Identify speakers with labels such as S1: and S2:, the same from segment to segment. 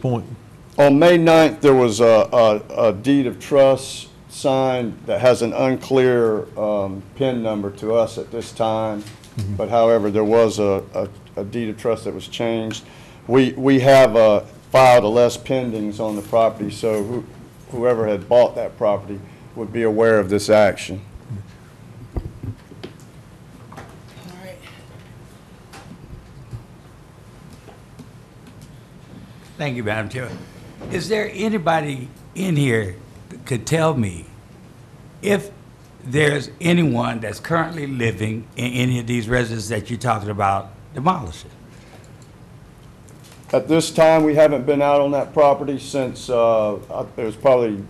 S1: point?
S2: On May 9th, there was a, a, a deed of trust signed that has an unclear, um, PIN number to us at this time. But however, there was a, a, a deed of trust that was changed. We, we have, uh, filed a less pendings on the property, so who- whoever had bought that property would be aware of this action.
S3: All right.
S4: Thank you, Madam Chair. Is there anybody in here that could tell me if there's anyone that's currently living in any of these residences that you're talking about demolishing?
S2: At this time, we haven't been out on that property since, uh, I- it was probably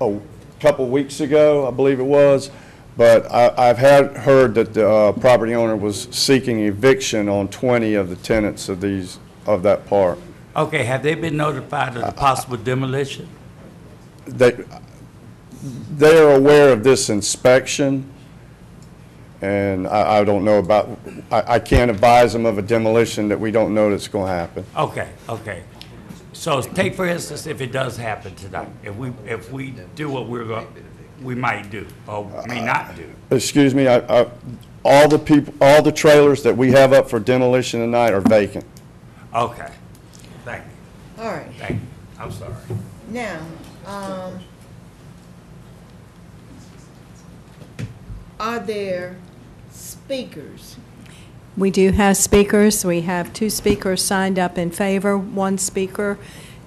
S2: a couple weeks ago, I believe it was. But I, I've had, heard that the, uh, property owner was seeking eviction on twenty of the tenants of these, of that park.
S4: Okay, have they been notified of the possible demolition?
S2: They, they are aware of this inspection, and I, I don't know about, I, I can't advise them of a demolition that we don't know that's gonna happen.
S4: Okay, okay. So take for instance, if it does happen tonight, if we, if we do what we're going, we might do, or may not do.
S2: Excuse me, I, I, all the people, all the trailers that we have up for demolition tonight are vacant.
S4: Okay. Thank you,
S3: All right.
S4: thank you. I'm sorry.
S3: Now, um, are there speakers?
S5: We do have speakers. We have two speakers signed up in favor, one speaker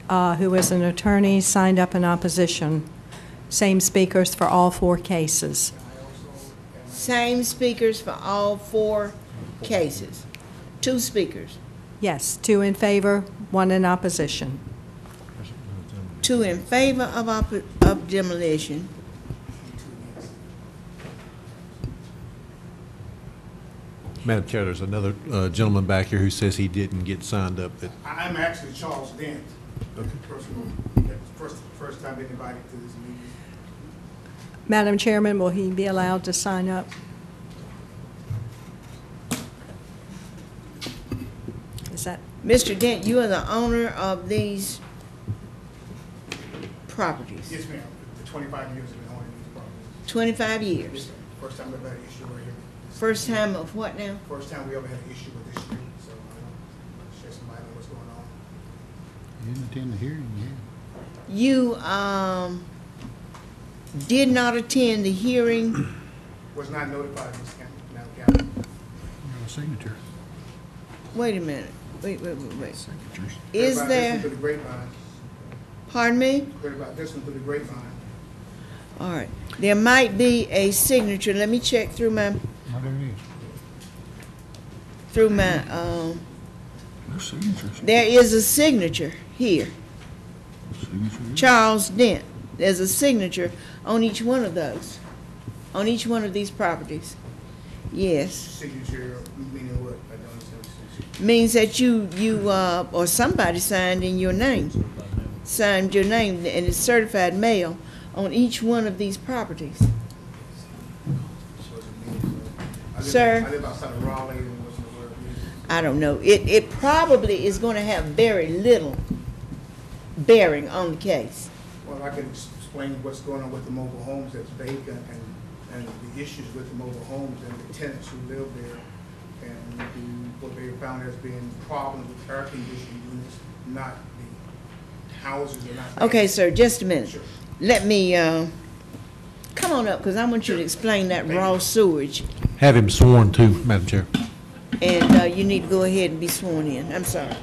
S5: uh, who is an attorney signed up in opposition. Same speakers for all four cases.
S3: Same speakers for all four cases? Two speakers,
S5: Yes, two in favor, one in opposition.
S3: two in favor of op- of demolition.
S1: Madam Chair, there's another uh, gentleman back here who says he didn't get signed up. that-
S6: I'm actually Charles Dent, the person who- that was first, first time been invited to this meeting.
S5: Madam Chairman, will he be allowed to sign up? Is that,
S3: Mr. Dent, you are the owner of these properties,
S6: Yes, ma'am, the twenty-five years I've been owning these properties.
S3: twenty-five
S6: Yes,
S3: years.
S6: ma'am. First time we've had an issue right here.
S3: First time of what now?
S6: First time we ever had an issue with this street, so I'm gonna shed some light on what's going on.
S7: You didn't attend the hearing, yeah.
S3: You, um, did not attend the hearing
S6: Was not notified, Ms. Campbell, Madam Campbell.
S7: You have a signature.
S3: Wait a minute, wait, wait, wait, wait.
S7: Signatures.
S3: Is
S6: Heard about this one
S3: there,
S6: Through the grapevine,
S3: pardon me?
S6: heard about this one through the grapevine.
S3: All right, there might be a signature, let me check through my,
S7: Oh, there it is.
S3: through my, um,
S7: No signatures.
S3: there is a signature here,
S7: Signatures.
S3: Charles Dent. There's a signature on each one of those, on each one of these properties. Yes,
S6: Signature, meaning what? I don't understand. signature.
S3: means that you, you, uh, or somebody signed in your name, signed your name, and it's certified mail on each one of these properties.
S6: So it's a meaning, so- I live-
S3: Sir.
S6: I live outside of Raleigh and wasn't aware of this.
S3: I don't know. It, it probably is going to have very little bearing on the case.
S6: Well, I can ex- explain what's going on with the mobile homes that's vacant and, and the issues with the mobile homes and the tenants who live there. And the- what they found as being problems with air conditioning units, not the houses are not.
S3: Okay, sir, just a minute.
S6: Sure.
S3: Let me, uh, come on up, because I want you to explain that raw sewage.
S1: Have him sworn to, Madam Chair.
S3: And uh, you need to go ahead and be sworn in. I'm sorry.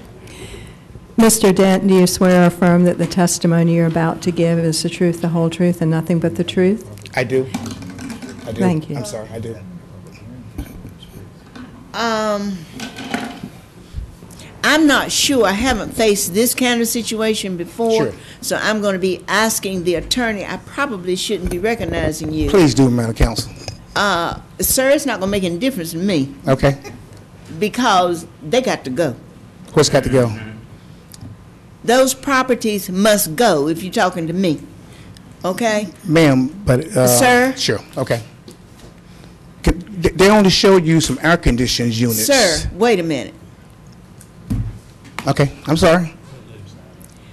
S5: Mr. Dent, do you swear or affirm that the testimony you're about to give is the truth, the whole truth, and nothing but the truth?
S8: I do. I do.
S5: Thank you.
S8: I'm sorry, I do.
S3: Um, I'm not sure. I haven't faced this kind of situation before.
S8: Sure.
S3: So I'm going to be asking the attorney, I probably shouldn't be recognizing you.
S8: Please do, Madam Counsel.
S3: Uh, sir, it's not going to make any difference to me.
S8: Okay?
S3: because they got to go.
S8: What's got to go?
S3: Those properties must go if you're talking to me. Okay?
S8: Ma'am, but, uh...
S3: Sir?
S8: Sure, okay. C- th- They only showed you some air-conditioned units.
S3: Sir, wait a minute.
S8: Okay, I'm sorry.